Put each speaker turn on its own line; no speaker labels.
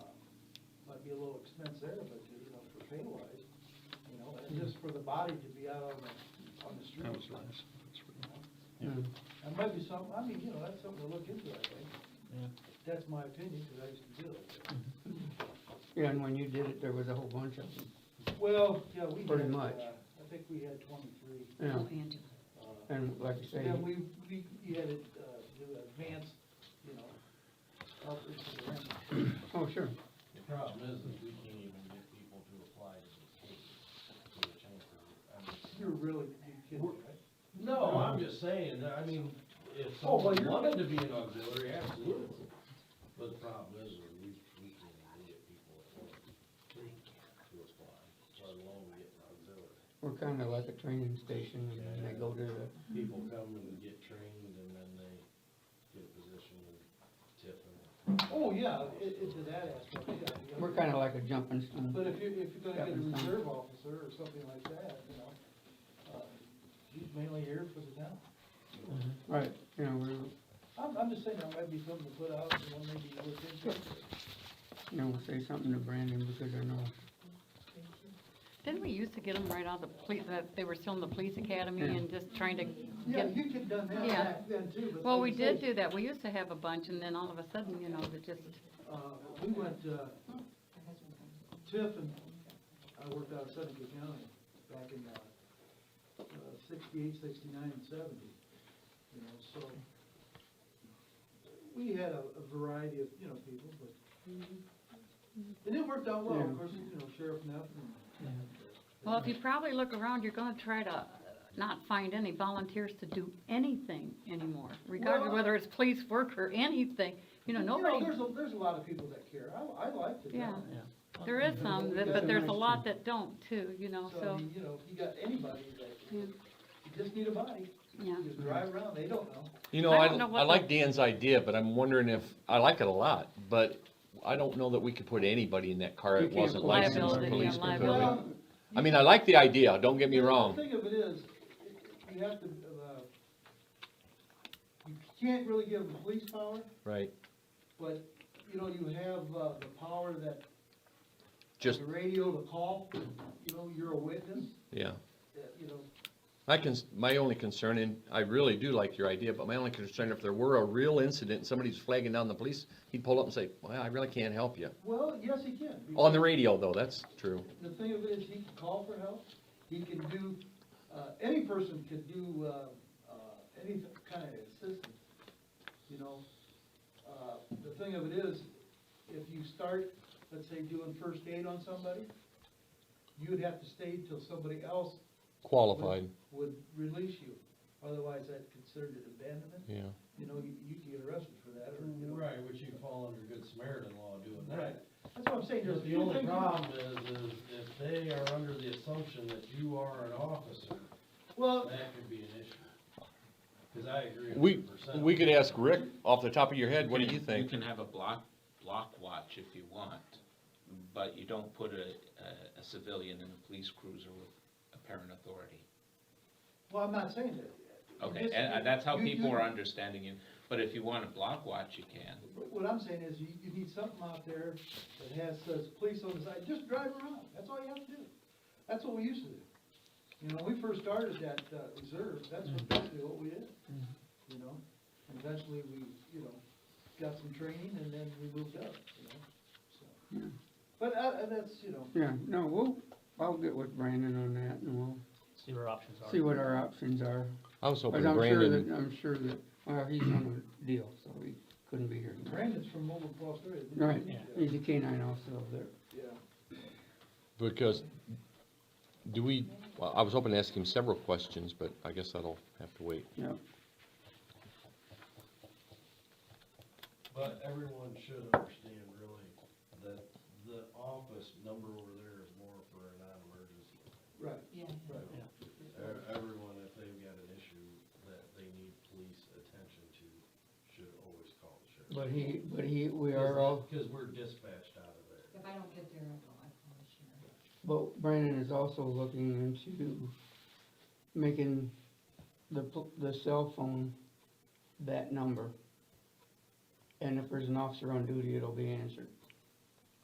be a little expense there, but, you know, for pay wise, you know, and just for the body to be out on the, on the street.
That was nice. That's pretty nice.
Hmm.
That might be something, I mean, you know, that's something to look into, I think.
Yeah.
That's my opinion, because I used to do it.
Yeah, and when you did it, there was a whole bunch of them,
Well, yeah, we had,
Pretty
uh,
much.
I think we had twenty-three,
yeah,
Angela.
uh,
and like I say,
Yeah, we, we, you had it, uh, do advance, you know, up into the range.
oh, sure,
The problem is, is we can't even get people to apply to the state for the chamber. I mean-
You're really, you're kidding, right?
No, I'm just saying, I mean, if
Oh, well,
someone
you're-
wanted to be an auxiliary, absolutely. But the problem is, is we, we can't even get people at work to apply, let alone get an auxiliary.
we're kinda like a training station, and they go to the,
People come and get trained and then they get a position and tip and.
Oh, yeah, it, it's to that aspect, yeah. yeah.
we're kinda like a jumping
But if
stone.
you, if you're gonna get a
Captain's time.
reserve officer or something like that, you know, uh, he's mainly here for the town.
Right, you know, we're,
I'm, I'm just saying, that might be something to put out, you know, maybe look into.
you know, say something to Brandon, because I know,
Didn't we used to get them right out of the police, that they were still in the police academy
Yeah.
and just trying to
Yeah,
get?
you could've done that
Yeah.
back then too, but.
Well, we
like I say,
did do that, we used to have a bunch and then all of a sudden, you know, that just,
Uh, we went, uh, Tiff and I worked out of Seneca County back in, uh, uh, sixty-eight, sixty-nine, and seventy, you know, so. We had a, a variety of, you know, people, but, and it worked out well,
Yeah.
of course, you know, Sheriff Neff and.
well, if you probably look around, you're gonna try to not find any volunteers to do anything anymore, regardless of
Well-
whether it's police work or anything, you know, nobody,
There's a, there's a lot of people that care, I, I liked it.
Yeah. there is some, that-
That's a
but there's a
nice
lot that don't too, you know,
So, I
so,
mean, you know, if you got anybody that,
Yeah.
you just need a body,
yeah.
just drive around, they don't know.
You know,
I
I,
don't know what
I like
the-
Dan's idea, but I'm wondering if, I like it a lot, but I don't know that we could put anybody in that car
You
that
can't
wasn't
put-
licensed
Liability, yeah,
police. could we?
liability.
Well,
I mean, I like the idea, don't get me
The
wrong.
thing of it is, you have to, uh, you can't really give them police power,
Right,
but, you know, you have, uh, the power that,
just,
the radio to call, you know, you're a witness,
yeah.
that, you know,
I can, my only concern, and I really do like your idea, but my only concern, if there were a real incident, and somebody's flagging down the police, he'd pull up and say, well, I really can't help you.
well, yes, he can.
On
because
the radio, though, that's true.
The thing of it is, he can call for help, he can do, uh, any person can do, uh, uh, any kind of assistance, you know? Uh, the thing of it is, if you start, let's say, doing first aid on somebody, you'd have to stay till somebody else
Qualified,
would release you. Otherwise, that's considered an abandonment,
yeah.
you know, you, you can get arrested for that, or, you know.
Right, which you fall under good Samaritan law doing
Right.
that.
That's what I'm saying, there's a
Because Mm, the
few
only
things.
problem is, is if they are under the assumption that you are an officer,
Well,
that could be an issue. Cause I agree a
We,
hundred percent.
we could ask Rick off the top of your head, what do
can-
you
You
think?
can have a block, block watch if you want, but you don't put a, a- a civilian in a police cruiser with apparent authority.
well, I'm not saying that.
Okay,
Just-
and and that's how
you- you-
people are understanding you, but if you want a block watch, you can.
What I'm saying is, you, you need something out there that has, says, police on the side, just drive around, that's all you have to do. That's what we used to do. You know, we first started that, uh, reserve, that's what, basically what we did, you know? And eventually, we, you know, got some training, and then we moved up, you know, so. But, uh, uh, that's, you know,
yeah, no, we'll, I'll get with Brandon on that, and we'll
See what our options are.
see what our options are.
I was
But
hoping
I'm sure
Brandon.
that, I'm sure that, well, he's on a deal, so he couldn't be here.
Brandon's from Mobile, Australia. isn't he?
Right,
Yeah.
he's a canine also there.
Yeah.
Because, do we, well, I was hoping to ask him several questions, but I guess that'll have to wait.
Yep.
But everyone should understand really that the office number over there is more for a non-emergency.
Right,
Yeah.
right.
E- Everyone, if they've got an issue that they need police attention to, should always call the sheriff.
But he, but he, we
Because
are
that-
all,
Cause we're dispatched out of there.
If I don't get there, I'll, I'll call the sheriff.
but Brandon is also looking into making the, pl- the cell phone that number. And if there's an officer on duty, it'll be answered.